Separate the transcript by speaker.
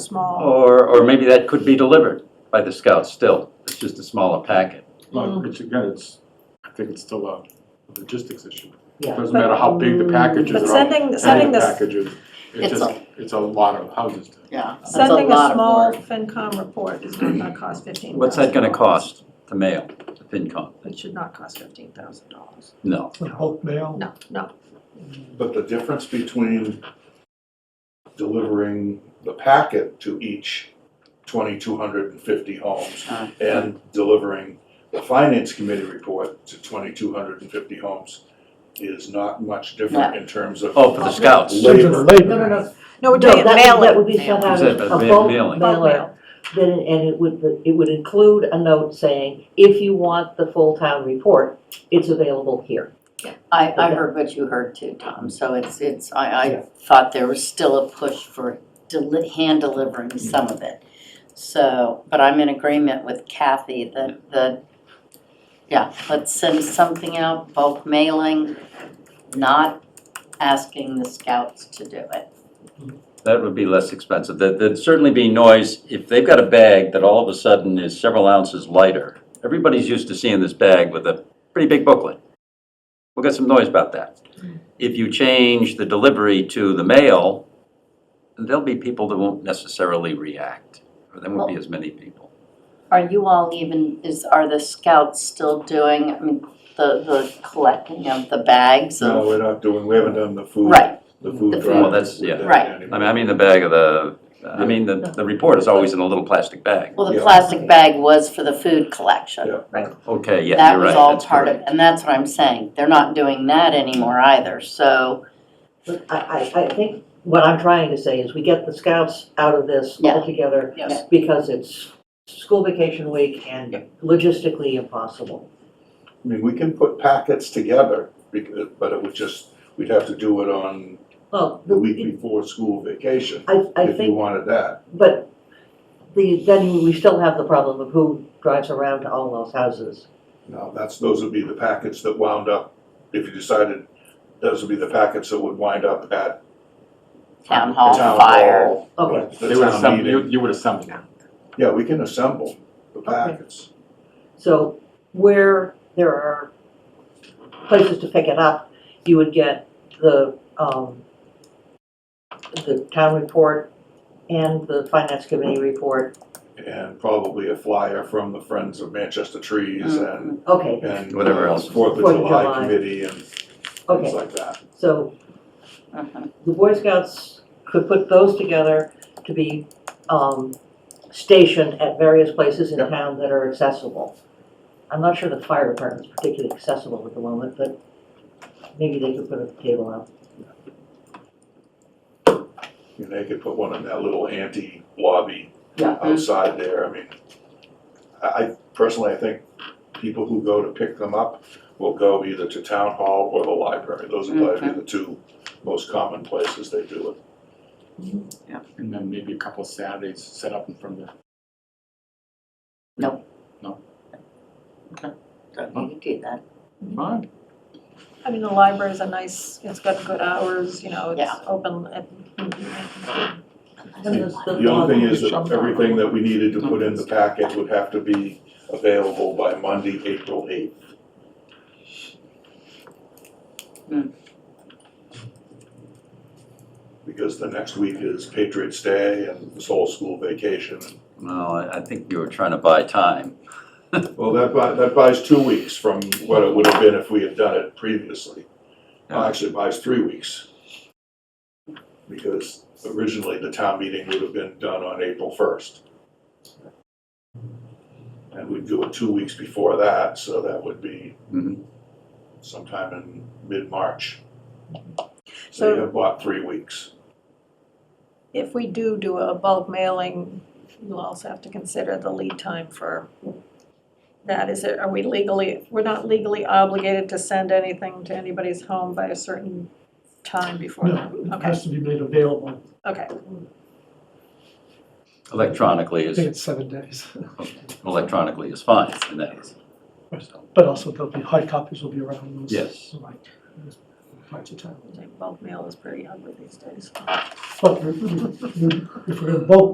Speaker 1: small.
Speaker 2: Or, or maybe that could be delivered by the scouts still, it's just a smaller packet.
Speaker 3: Well, it's, again, it's, I think it's still a logistics issue. It
Speaker 4: Yeah.
Speaker 3: Doesn't matter how big the packages are.
Speaker 1: But sending, sending
Speaker 3: Sending the
Speaker 1: this,
Speaker 3: packages, it's
Speaker 4: It's
Speaker 3: just, it's a lot of houses. to-
Speaker 4: Yeah. that's
Speaker 1: sending a
Speaker 4: lot of
Speaker 1: small
Speaker 4: work.
Speaker 1: FinCom report is not gonna cost fifteen thousand.
Speaker 2: What's that gonna cost to mail, to FinCom?
Speaker 1: It should not cost fifteen thousand dollars.
Speaker 2: No.
Speaker 5: The bulk mail?
Speaker 1: No, no,
Speaker 6: But the difference between delivering the packet to each twenty-two hundred and fifty homes
Speaker 4: Uh.
Speaker 6: and delivering the finance committee report to twenty-two hundred and fifty homes is not much different in terms of.
Speaker 2: Oh, for the scouts.
Speaker 6: Labor.
Speaker 5: Something labor.
Speaker 7: No, no, no.
Speaker 1: no, we're
Speaker 7: No,
Speaker 1: doing it, Oh,
Speaker 7: that would-
Speaker 1: mail
Speaker 7: That
Speaker 1: it,
Speaker 7: would be sent out
Speaker 2: Is
Speaker 7: as
Speaker 2: it ma-
Speaker 7: a bulk
Speaker 2: mailing?
Speaker 1: bulk
Speaker 7: mailer.
Speaker 1: mail.
Speaker 7: Then, and it would, it would include a note saying, if you want the full town report, it's available here.
Speaker 4: I, I heard what you heard too, Tom, so it's, it's, I, I thought there was still a push for deli- hand delivering some of it. So, but I'm in agreement with Kathy that, that, yeah, let's send something out, bulk mailing, not asking the scouts to do it.
Speaker 2: That would be less expensive, there, there'd certainly be noise, if they've got a bag that all of a sudden is several ounces lighter, everybody's used to seeing this bag with a pretty big booklet. We'll get some noise about that. If you change the delivery to the mail, there'll be people that won't necessarily react, or there won't be as many people.
Speaker 4: Are you all even, is, are the scouts still doing, I mean, the, the collecting of the bags
Speaker 6: No,
Speaker 4: of?
Speaker 6: we're not doing, we haven't done the food.
Speaker 4: Right,
Speaker 6: The food
Speaker 4: The
Speaker 6: drive.
Speaker 4: food. Well,
Speaker 2: Oh, that's-
Speaker 6: We've
Speaker 2: yeah.
Speaker 6: done
Speaker 4: Right.
Speaker 6: that
Speaker 2: I mean, I mean the bag of the, I mean, the, the report is always in a little plastic bag.
Speaker 4: well, the
Speaker 6: Yeah.
Speaker 4: plastic bag was for the food collection.
Speaker 6: Yeah.
Speaker 2: Okay, yeah,
Speaker 4: That
Speaker 2: you're right,
Speaker 4: was all
Speaker 2: that's
Speaker 4: part of,
Speaker 2: correct.
Speaker 4: and that's what I'm saying, they're not doing that anymore either, so,
Speaker 7: But I, I, I think what I'm trying to say is we get the scouts out of this
Speaker 4: Yeah.
Speaker 7: altogether
Speaker 4: Yes.
Speaker 7: because it's school vacation week and logistically impossible.
Speaker 6: I mean, we can put packets together, because, but it would just, we'd have to do it on
Speaker 7: Well,
Speaker 6: the week before school vacation,
Speaker 7: I, I
Speaker 6: if you
Speaker 7: think,
Speaker 6: wanted that.
Speaker 7: but the, then we still have the problem of who drives around to all those houses.
Speaker 6: Now, that's, those would be the packets that wound up, if you decided, those would be the packets that would wind up at
Speaker 4: town
Speaker 6: the
Speaker 4: hall
Speaker 6: town
Speaker 4: fire.
Speaker 6: hall.
Speaker 7: Okay,
Speaker 3: They
Speaker 6: The
Speaker 3: would
Speaker 6: town
Speaker 3: assemble, you,
Speaker 6: meeting.
Speaker 3: you would assemble them.
Speaker 6: Yeah, we can assemble the
Speaker 7: Okay.
Speaker 6: packets.
Speaker 7: so where there are places to pick it up, you would get the, um, the town report and the finance committee report.
Speaker 6: And probably a flyer from the Friends of Manchester Trees and,
Speaker 7: Okay,
Speaker 6: and.
Speaker 2: Whatever else.
Speaker 6: Fourth of
Speaker 7: Mm-hmm. Fourth of
Speaker 6: July
Speaker 7: July.
Speaker 6: committee and things
Speaker 7: okay,
Speaker 6: like that.
Speaker 7: so
Speaker 4: Mhm.
Speaker 7: the Boy Scouts could put those together to be um, stationed at various places in
Speaker 6: Yep.
Speaker 7: town that are accessible. I'm not sure the fire department is particularly accessible at the moment, but maybe they could put a table out.
Speaker 6: And they could put one in that little anti lobby
Speaker 7: Yeah.
Speaker 6: outside there, I mean, I, I personally, I think people who go to pick them up will go either to town hall or the library, those are probably the two most common places they do it.
Speaker 3: And then maybe a couple of Saturdays set up in front of the.
Speaker 4: Don't need to do that.
Speaker 3: Fine.
Speaker 1: I mean, the library's a nice, it's got good hours, you know, it's
Speaker 4: Yeah.
Speaker 1: open at.
Speaker 7: And there's
Speaker 6: The only thing is
Speaker 3: Shove
Speaker 6: that
Speaker 3: it down.
Speaker 6: everything that we needed to put in the packet would have to be available by Monday, April eighth.
Speaker 4: Hmm.
Speaker 6: Because the next week is Patriots Day and this whole school vacation.
Speaker 2: Well, I- I think you were trying to buy time.
Speaker 6: Well, that buys, that buys two weeks from what it would have been if we had done it previously. Well, Actually, it buys three weeks. Because originally, the town meeting would have been done on April first. And we'd do it two weeks before that, so that would be
Speaker 2: Mhm.
Speaker 6: sometime in mid-March. So you have bought three weeks.
Speaker 1: If we do do a bulk mailing, you'll also have to consider the lead time for that. Is it, are we legally, we're not legally obligated to send anything to anybody's home by a certain time before that?
Speaker 5: No, it
Speaker 1: Okay,
Speaker 5: has to be made available.
Speaker 1: okay.
Speaker 2: Electronically
Speaker 5: I think
Speaker 2: is,
Speaker 5: it's seven days.
Speaker 2: electronically is fine in that regard. So,
Speaker 5: But also there'll be, hard copies will be around those.
Speaker 2: Yes.
Speaker 5: Right. Parts of town.
Speaker 1: Bulk mail is pretty ugly these days.
Speaker 5: But we- we- we- if we're gonna bulk